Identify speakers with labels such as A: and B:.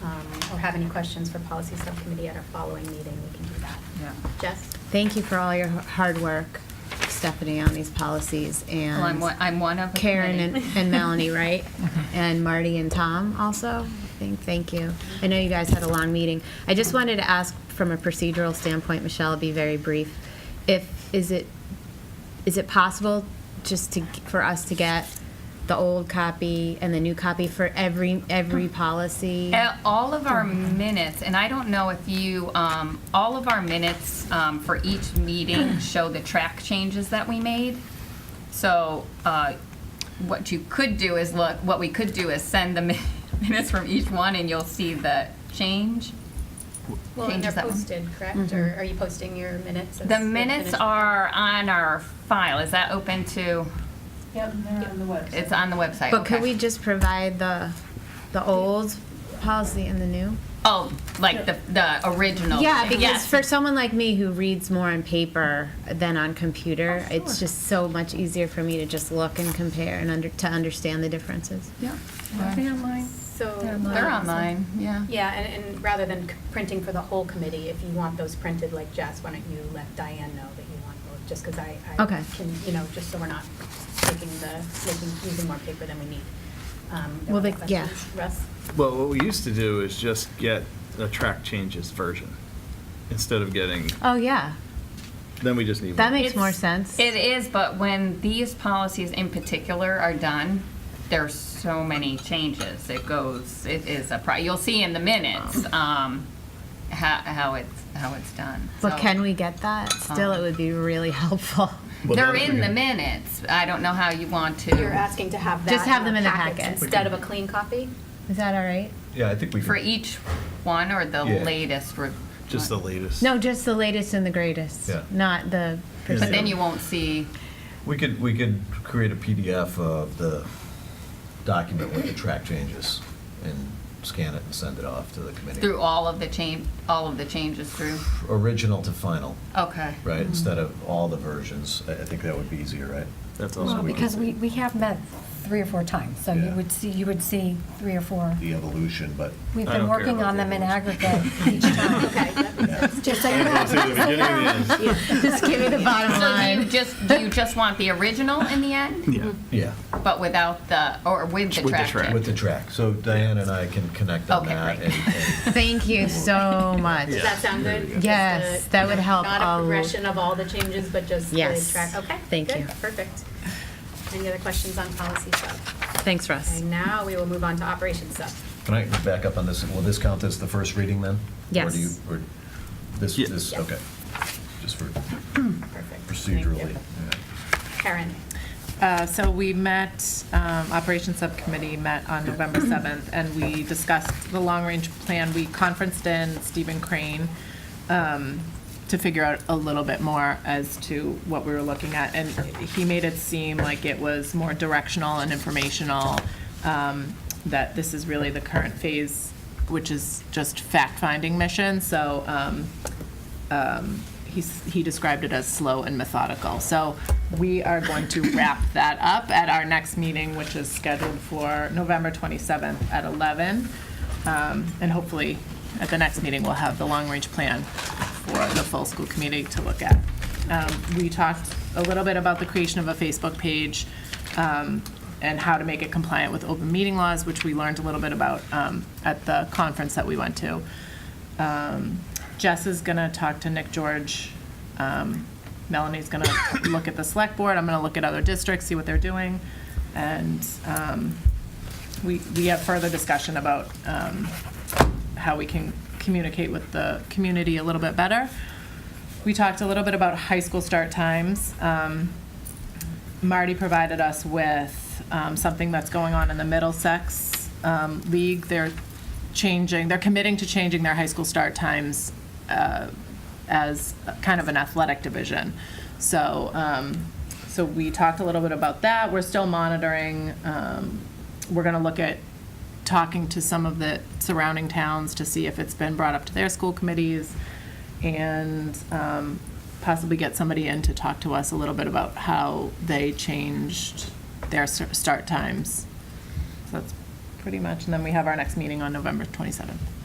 A: um, have any questions for policy subcommittee at our following meeting, we can do that.
B: Yeah.
A: Jess?
C: Thank you for all your hard work, Stephanie, on these policies and.
B: Well, Oh, I'm one, I'm one of. a
C: Karen and,
B: committee.
C: and Melanie, right? And Marty and Tom also, I think, thank you. I know you guys had a long meeting. I just wanted to ask, from a procedural standpoint, Michelle, be very brief. If, is it, is it possible just to, for us to get the old copy and the new copy for every, every policy?
B: Uh, All of our minutes, and I don't know if you, um, all of our minutes um, for each meeting show the track changes that we made. So uh, what you could do is look, what we could do is send the min- minutes from each one and you'll see the change.
A: Well, and they're
B: Changes that one.
A: posted, correct? Or are you posting your minutes? as
B: The
A: they're
B: minutes
A: finished?
B: are on our file. Is that open to,
D: Yep, they're on the website.
B: it's on the website?
C: But could
B: okay.
C: we just provide the, the old policy and the new?
B: Oh, like the, the original?
C: Yeah, because
B: Yes.
C: for someone like me who reads more on paper than on computer, it's just so much easier for me to just look and compare and under, to understand the differences.
B: Yeah. Are they online?
A: So.
B: They're
A: um,
B: online, yeah.
A: Yeah, and, and rather than c- printing for the whole committee, if you want those printed like Jess, why don't you let Diane know that you want those? Just because I, I
C: Okay.
A: can, you know, just so we're not taking the, making, using more paper than we need. Um, there
C: Well,
A: were
C: they-
A: questions.
C: yeah.
A: Russ?
E: Well, what we used to do is just get the track changes version instead of getting,
C: Oh, yeah.
E: then we just need.
C: That
E: one.
C: makes more
B: It's-
C: sense.
B: It is, but when these policies in particular are done, there's so many changes. It goes, it is a, pro- you'll see in the minutes,
C: Mm.
B: um, how, how it's, how it's done.
C: But
B: So-
C: can we get that? Still, it would be really helpful.
E: Well,
B: They're
E: now if we
B: in the
E: can-
B: minutes. I don't know how you want
A: You're
B: to,
A: asking to have that.
C: Just have them
A: our
C: in the
A: packets
C: packet.
A: Instead of a clean copy?
C: Is that all right?
E: Yeah, I think we.
B: for
E: can-
B: each one or the
E: Yeah.
B: latest. re-
E: Just the latest.
C: No, just the latest and the greatest,
F: Yeah.
C: not the.
E: Yeah.
B: But then
C: percent.
B: you won't see,
F: We could, we could create a PDF of the document with the track changes and scan it and send it off to the committee.
B: through all of the change, all of the changes through,
F: Original to final,
C: Oh.
B: okay.
F: right, instead of all the versions. I, I think that would be easier, right?
E: That's
F: So
G: Well,
E: also.
F: we
G: because
F: can-
G: we, we have met three or four times, so you
F: Yeah.
G: would see, you would see three or four.
F: The evolution, but.
G: We've
E: I
G: been
E: don't care
G: working
E: about
G: on
E: the
G: them in
E: others.
G: aggregate each time.
A: Okay, that makes sense.
G: Just so you
E: Go through the
G: know.
E: beginning and the end.
C: Just give me the bottom
B: So do you
C: line.
B: just, do you just want the original in the end,
E: Yeah.
F: Yeah,
B: but without the, or with the
E: With the
B: track
E: track.
B: change?
F: with the track. So Diane and I can connect on
B: Okay,
F: that.
B: great.
F: and- and-
C: Thank you so much.
A: Does that sound good?
C: Yes,
A: Just a-
C: that would help
A: Not
C: a
A: a
C: l-
A: progression of all the changes, but just the
C: Yes.
A: track, okay?
C: Thank
A: good,
C: you.
A: Perfect. Any other questions on policy sub?
C: Thanks, Russ.
A: Okay, now we will move on to operations sub.
F: Can I back up on this? Will this count as the first reading then? Or
C: Yes.
F: do you, or this,
E: Yeah.
F: this,
A: Yeah.
F: okay. Just for
A: Perfect. Thank you.
F: procedurally. yeah.
A: Karen,
H: Uh, So we met, um, Operations Subcommittee met on November 7th, and we discussed the long-range plan. We conferenced in Stephen Crane um, to figure out a little bit more as to what we were looking at. And he made it seem like it was more directional and informational, um, that this is really the current phase, which is just fact-finding mission. So um, um, he's- he described it as slow and methodical. So we are going to wrap that up at our next meeting, which is scheduled for November 27th at 11. Um, And hopefully, at the next meeting, we'll have the long-range plan for the full school community to look at. Um, We talked a little bit about the creation of a Facebook page um, and how to make it compliant with open meeting laws, which we learned a little bit about um, at the conference that we went to. Um, Jess is going to talk to Nick George. Um, Melanie's going to look at the select board. I'm going to look at other districts, see what they're doing. And um, we, we have further discussion about um, how we can communicate with the community a little bit better. We talked a little bit about high school start times. Um, Marty provided us with um, something that's going on in the Middlesex um, League. They're changing, they're committing to changing their high school start times uh, as kind of an athletic division. So, um, so we talked a little bit about that. We're still monitoring. um, We're going to look at talking to some of the surrounding towns to see if it's been brought up to their school committees and um, possibly get somebody in to talk to us a little bit about how they changed their s- start times. So that's pretty much, and then we have our next meeting on November 27th.